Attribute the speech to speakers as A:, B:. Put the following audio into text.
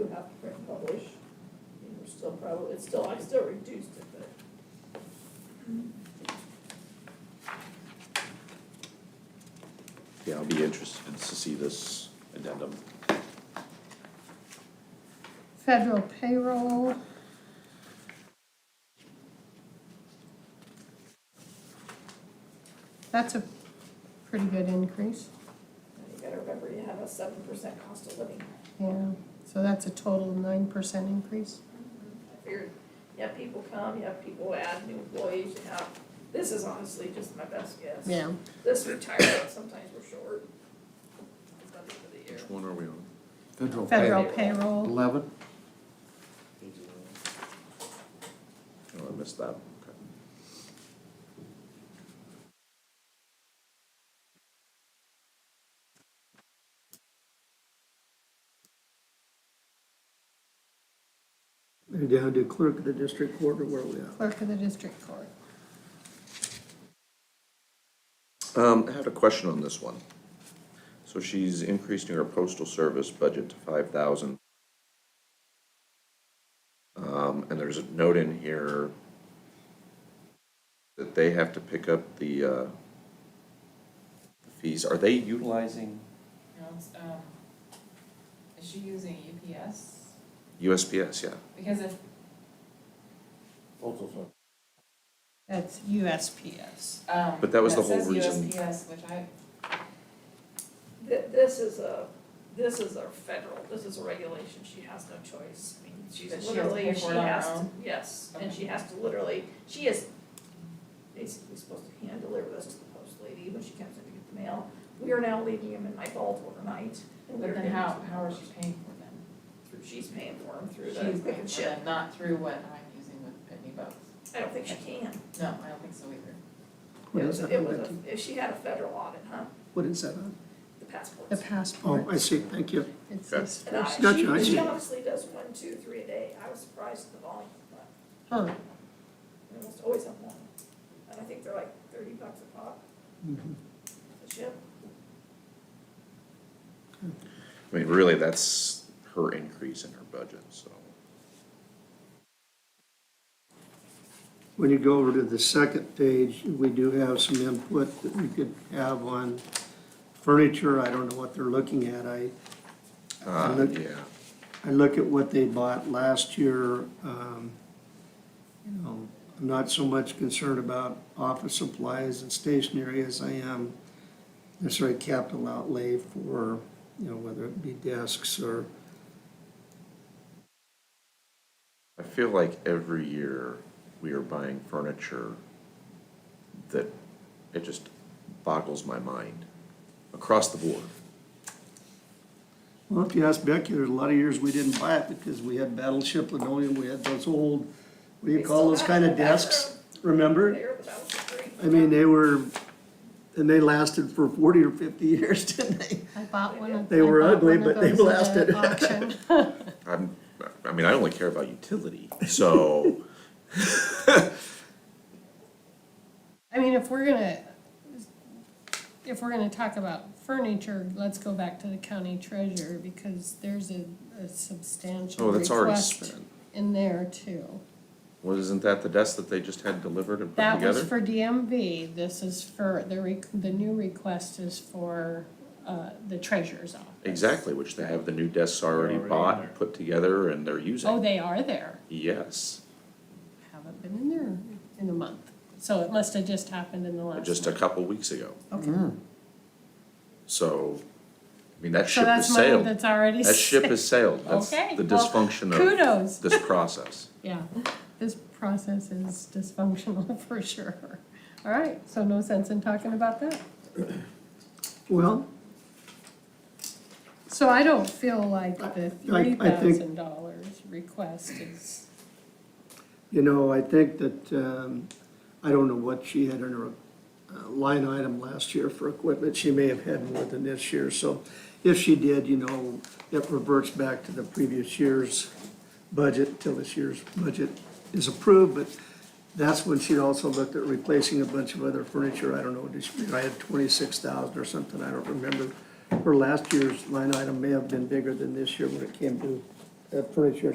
A: zero, it's still, I still reduced it, but.
B: Yeah, I'll be interested to see this addendum.
C: Federal payroll. That's a pretty good increase,
A: You gotta remember, you have a seven percent cost of living.
C: yeah, so that's a total nine percent increase.
A: I figured, you have people come, you have people add new employees, you have, this is honestly just my best guess.
C: Yeah,
A: This retirement, sometimes we're short. It's not the end of the year.
B: Which one are we on?
D: Federal
C: federal
D: pay.
C: payroll,
D: Eleven,
B: Oh, I missed that.
E: And down to clerk of the district court, or where are we at?
C: clerk of the district court.
B: Okay. Um, I had a question on this one. So she's increasing her postal service budget to five thousand. Um, and there's a note in here that they have to pick up the, uh, fees. Are they utilizing
F: No, it's, um, is she using UPS?
B: USPS? Yeah.
F: Because if,
C: That's USPS.
F: um,
B: But that was the
F: says
B: whole reason.
F: USPS, which I,
A: Th- This is a, this is a federal, this is a regulation, she has no choice. I mean, she's
F: But she has to
A: literally,
F: pay
A: she
F: for it on her
A: has to,
F: own?
A: yes, and
F: Okay.
A: she has to literally, she is basically supposed to hand deliver this to the post lady when she comes in to get the mail. We are now leaving them in my vault overnight. and we
F: but
A: are
F: then
A: getting
F: how,
A: them
F: how is she paying for them?
A: through- She's paying for them through
F: She's
A: the
F: paying
A: pick and
F: for
A: ship.
F: them, Not through what I'm using with Pitney Bowes.
A: I don't think she can.
F: No, I don't think so either.
E: What
A: It
E: is
A: was,
E: that
A: it was,
E: on that
A: a- if she had a federal audit, huh,
E: What is that on?
A: the
C: The
A: passports.
E: Oh,
C: passport,
E: I see, thank you.
C: it's this
A: And I,
C: first,
E: Gotcha, I
A: she, she
E: see.
A: honestly does one, two, three a day. I was surprised at the volume, but.
C: huh,
A: They almost always have one, and I think they're like thirty bucks a pop,
E: Mhm.
A: a ship.
B: I mean, really, that's her increase in her budget, so.
E: When you go over to the second page, we do have some input that we could have on furniture. I don't know what they're looking at. I, I
B: Uh,
E: look,
B: yeah.
E: I look at what they bought last year. um, You know, I'm not so much concerned about office supplies and stationery as I am necessarily capital outlay for, you know, whether it be desks or
B: I feel like every year we are buying furniture that it just boggles my mind across the board.
E: Well, if you ask Becky, there's a lot of years we didn't buy it because we had Battleship linoleum, we had those old, what do you
A: They
E: call those
A: still have
E: kind of
A: them back
E: desks? Remember?
A: There, but that was for free.
E: I mean, they were, and they lasted for forty or fifty years, didn't they?
C: I bought one of, I
E: They were
C: bought
E: ugly,
C: one of
E: but they
C: those uh, at
E: lasted.
C: auction.
B: I'm, I mean, I only care about utility, so
C: I mean, if we're gonna, if we're gonna talk about furniture, let's go back to the county treasurer, because there's a, a substantial
B: Oh, that's already
C: request
B: spent.
C: in there too.
B: wasn't that the desk that they just had delivered and put
C: That was
B: together?
C: for DMV, this is for, the re, the new request is for, uh, the treasurer's office.
B: Exactly, which they have the new desks already bought, put together, and they're
C: Oh,
B: using.
C: they are there,
B: Yes,
C: haven't been in there in a month, so it must have just happened in the last.
B: just a
C: month.
B: couple weeks ago.
C: Okay,
B: So, I mean, that
C: so
B: ship
C: that's
B: has
C: money
B: sailed.
C: that's already.
B: That ship
C: sailed.
B: has sailed. That's
C: Okay,
B: the
C: well,
B: dysfunction of
C: Kudos.
B: this process.
C: Yeah, this process is dysfunctional for sure. All right, so no sense in talking about that.
E: Well,
C: So I don't feel like the
E: I- I
C: three
E: think-
C: thousand dollars request is,
E: you know, I think that, um, I don't know what she had in her uh, line item last year for equipment. She may have had more than this year, so if she did, you know, it reverts back to the previous year's budget until this year's budget is approved, but that's when she also looked at replacing a bunch of other furniture. I don't know, did she, I had twenty-six thousand or something, I don't remember. Her last year's line item may have been bigger than this year when it came to uh, furniture